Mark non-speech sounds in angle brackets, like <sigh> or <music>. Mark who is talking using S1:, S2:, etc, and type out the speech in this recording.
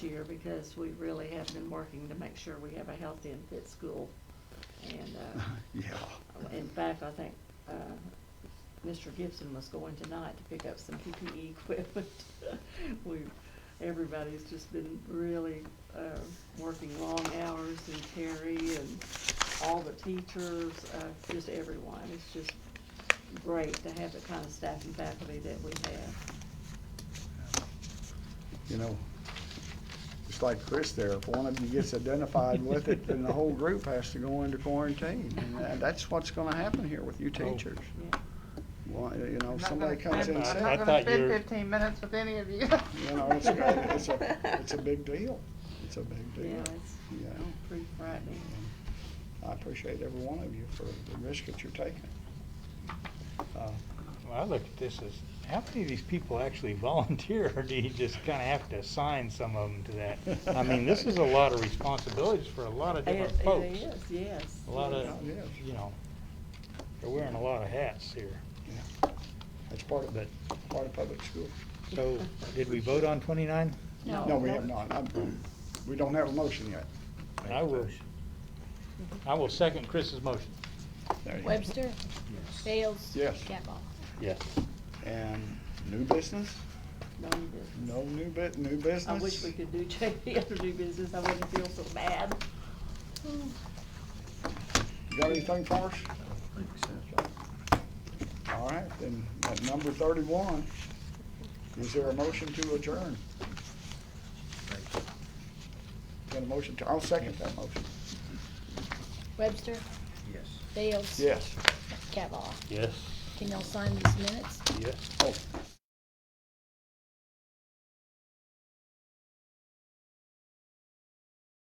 S1: year because we really have been working to make sure we have a healthy and fit school. And, uh,
S2: <laughs> Yeah.
S1: in fact, I think, uh, Mr. Gibson was going tonight to pick up some PPE <laughs> equipment. We, everybody's just been really, uh, working long hours and Terry and all the teachers, uh, just everyone. It's just great to have the kind of staff and faculty that we have.
S2: You know, just like Chris there, if one of you gets identified with it, then the whole group has to go into quarantine. And that- that's what's gonna happen here with you teachers.
S1: Yeah.
S2: Well, you know,
S3: I'm not
S2: somebody
S3: gonna
S2: comes in
S3: spend- I'm
S2: sick,
S4: I
S3: not
S4: thought
S3: gonna spend
S4: you were-
S3: fifteen minutes with any of you.
S2: you know, it's, a- it's a,
S1: <laughs>
S2: it's a big deal. It's a big deal.
S1: Yeah, it's
S2: Yeah.
S1: pretty frightening.
S2: I appreciate every one of you for the risk that you're taking. Uh,
S4: Well, I look at this as, how many of these people actually <laughs> volunteer, or do you just kind of have to assign some of them to that? I mean, this is a lot of responsibilities for a
S1: <laughs>
S4: lot of different
S1: It-
S4: folks.
S1: It is, yes.
S4: A lot of,
S2: Yeah, it is.
S4: you know, they're wearing a lot of hats here.
S2: That's part of,
S4: But-
S2: part of public school.
S4: So, did we vote on twenty-nine?
S1: No.
S2: No, we have not. I'm- We don't have a motion yet.
S4: I will, I will second Chris's motion.
S2: There you go.
S5: Webster? Bales?
S2: Yes.
S5: Cavall?
S4: Yes.
S2: And new business?
S1: No, you didn't.
S2: No new bit, new business?
S1: I wish we could do <laughs> JP under new business, I wouldn't feel so bad.
S2: You got anything for us? All right, then, at number thirty-one, is there a motion to adjourn? Got a motion to, I'll second that motion.
S5: Webster?
S6: Yes.
S5: Bales?
S2: Yes.
S5: Cavall?
S4: Yes.
S5: Can y'all sign these minutes?
S4: Yes.
S2: Oh,